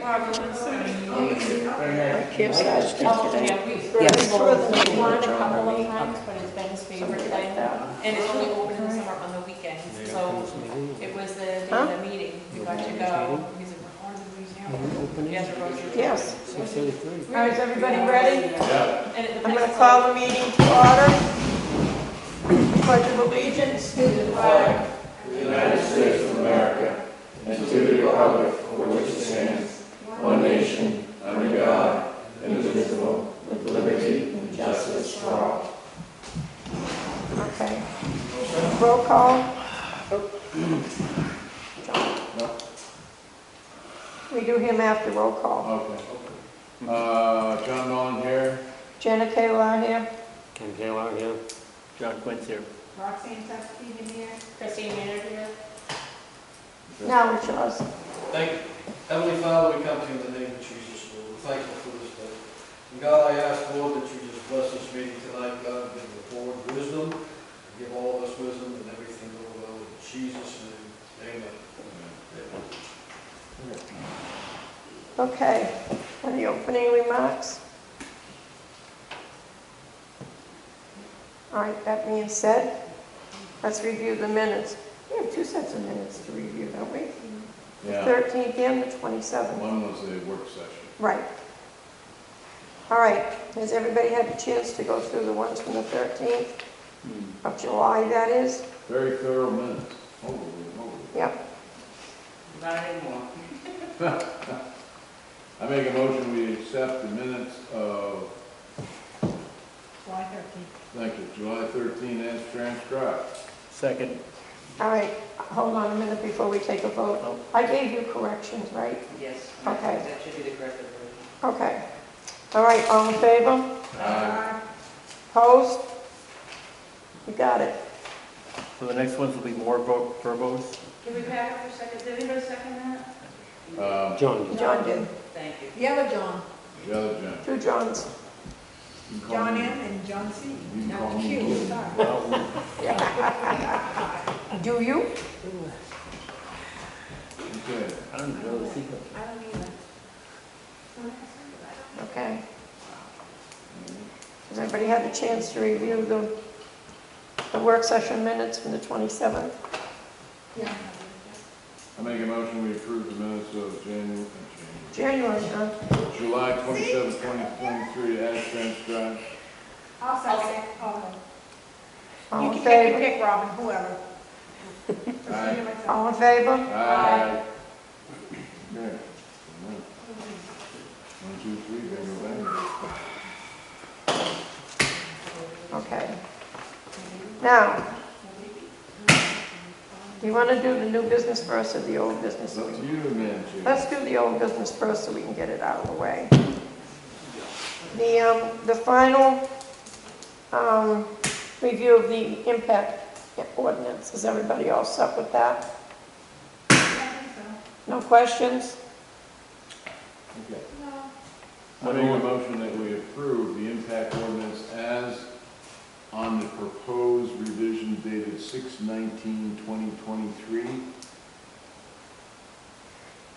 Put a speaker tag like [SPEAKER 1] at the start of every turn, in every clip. [SPEAKER 1] Barbara, sorry.
[SPEAKER 2] Campsite
[SPEAKER 1] Oh,
[SPEAKER 2] street today.
[SPEAKER 1] yeah, we've heard
[SPEAKER 2] Yes.
[SPEAKER 1] people want it a couple of times, but it's been his favorite thing. And it's only open in the summer on the weekends, so it was the day of the meeting, we got to go, he's in
[SPEAKER 3] Mm-hmm.
[SPEAKER 1] the museum. Yes, Roger.
[SPEAKER 2] Yes.
[SPEAKER 1] All right, is everybody ready? And at the
[SPEAKER 2] I'm
[SPEAKER 1] next
[SPEAKER 2] going to call the meeting to order. Pledge of allegiance to
[SPEAKER 1] uh,
[SPEAKER 2] the flag. of America and to the republic for which it stands, one nation, under God, indivisible, with liberty and justice for all. Okay. Roll call. We do him after roll call.
[SPEAKER 3] Okay. Uh, John Mullen here.
[SPEAKER 2] Jenna Kayla here.
[SPEAKER 4] Ken Taylor, yeah. John Quint's here.
[SPEAKER 1] Roxanne Tuckstein in here. Christine Maynard here.
[SPEAKER 2] Now it's yours.
[SPEAKER 5] Thank, Heavenly Father, we come to you in the name of Jesus, Lord. We're thankful for this day. And God, I ask, Lord, that you just bless this meeting tonight, God, give the board wisdom, give all of us wisdom and everything, Lord, Lord, in Jesus' name, amen. Amen.
[SPEAKER 2] Okay, any opening remarks? All right, that being said, let's review the minutes. We have two sets of minutes to review, don't we?
[SPEAKER 3] Yeah,
[SPEAKER 2] 13th and the 27th.
[SPEAKER 3] one was the work session.
[SPEAKER 2] Right. All right, has everybody had a chance to go through the ones from the 13th of July, that is?
[SPEAKER 3] Very thorough minutes. Holy moly.
[SPEAKER 2] Yep,
[SPEAKER 1] Not anymore.
[SPEAKER 3] I make a motion, we accept the minutes of,
[SPEAKER 1] July thirteenth.
[SPEAKER 3] thank you, July 13 as transcribed.
[SPEAKER 4] Second.
[SPEAKER 2] all right, hold on a minute before we take a vote. I gave you corrections, right?
[SPEAKER 6] Yes.
[SPEAKER 2] Okay.
[SPEAKER 6] That should be the correct version.
[SPEAKER 2] Okay. All right, all in favor? Opposed? You got it.
[SPEAKER 4] So the next ones will be more vo- verbose?
[SPEAKER 1] Can we back up for a second? Did anybody second that?
[SPEAKER 3] Um,
[SPEAKER 4] John.
[SPEAKER 2] John did.
[SPEAKER 6] Thank you.
[SPEAKER 1] The other John.
[SPEAKER 3] The other John.
[SPEAKER 2] Two Johns.
[SPEAKER 3] You can call me-
[SPEAKER 1] and John C.
[SPEAKER 3] You can call me Lou.
[SPEAKER 2] Do you?
[SPEAKER 3] Okay.
[SPEAKER 4] I don't know the secret.
[SPEAKER 1] I don't either.
[SPEAKER 2] Okay. Has everybody had a chance to review the, the work session minutes from the 27th?
[SPEAKER 1] Yeah.
[SPEAKER 3] I make a motion, we approve the minutes of January,
[SPEAKER 2] January, huh?
[SPEAKER 3] January- July 27, 2023 as transcribed.
[SPEAKER 1] I'll second. Oh,
[SPEAKER 2] All in
[SPEAKER 1] You can you can
[SPEAKER 2] favor?
[SPEAKER 1] pick Robin, whoever.
[SPEAKER 3] Aye.
[SPEAKER 2] All in favor?
[SPEAKER 3] Aye. Okay. One, two, three, go back.
[SPEAKER 2] Okay. Now, do you want to do the new business first or the old business?
[SPEAKER 3] It's up to you, man, chief.
[SPEAKER 2] Let's do the old business first so we can get it out of the way. The, um, the final, um, review of the impact ordinance, is everybody all set with that? No questions?
[SPEAKER 3] Okay. I make a motion that we approve the impact ordinance as on the proposed revision dated 2023.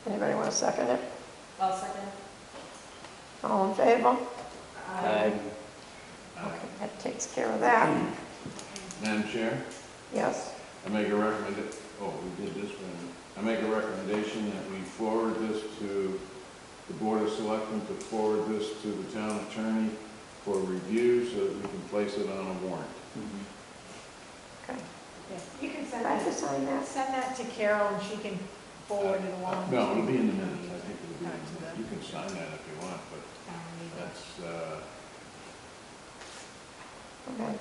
[SPEAKER 2] Anybody want to second it?
[SPEAKER 1] I'll second.
[SPEAKER 2] All in favor?
[SPEAKER 4] Aye.
[SPEAKER 2] Okay, That takes care of that,
[SPEAKER 3] Madam Chair,
[SPEAKER 2] yes.
[SPEAKER 3] I make a recommend, oh, we did this one. I make a recommendation that we forward this to the Board of Selectmen to forward this to the town attorney for review so that we can place it on a warrant.
[SPEAKER 1] You can
[SPEAKER 2] Did
[SPEAKER 1] send
[SPEAKER 2] I
[SPEAKER 1] that,
[SPEAKER 2] have to sign that?
[SPEAKER 1] send that to Carol and she can forward it along.
[SPEAKER 3] No, it'll be in the minutes, I think it'll be in the minutes. You can sign that if you want, but that's, uh,
[SPEAKER 2] Okay.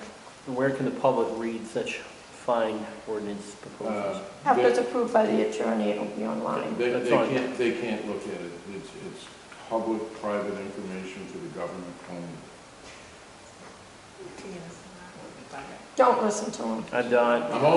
[SPEAKER 4] Where can the public read such fine ordinance proposals?
[SPEAKER 2] After
[SPEAKER 3] uh, They-
[SPEAKER 2] it's approved by the attorney, it'll be online.
[SPEAKER 3] They,
[SPEAKER 4] That's
[SPEAKER 3] they
[SPEAKER 4] fine.
[SPEAKER 3] can't, they can't look at it. It's, it's public, private information to the government only.
[SPEAKER 1] Yes.
[SPEAKER 2] Don't listen to him.
[SPEAKER 4] I'm done.
[SPEAKER 3] I'm all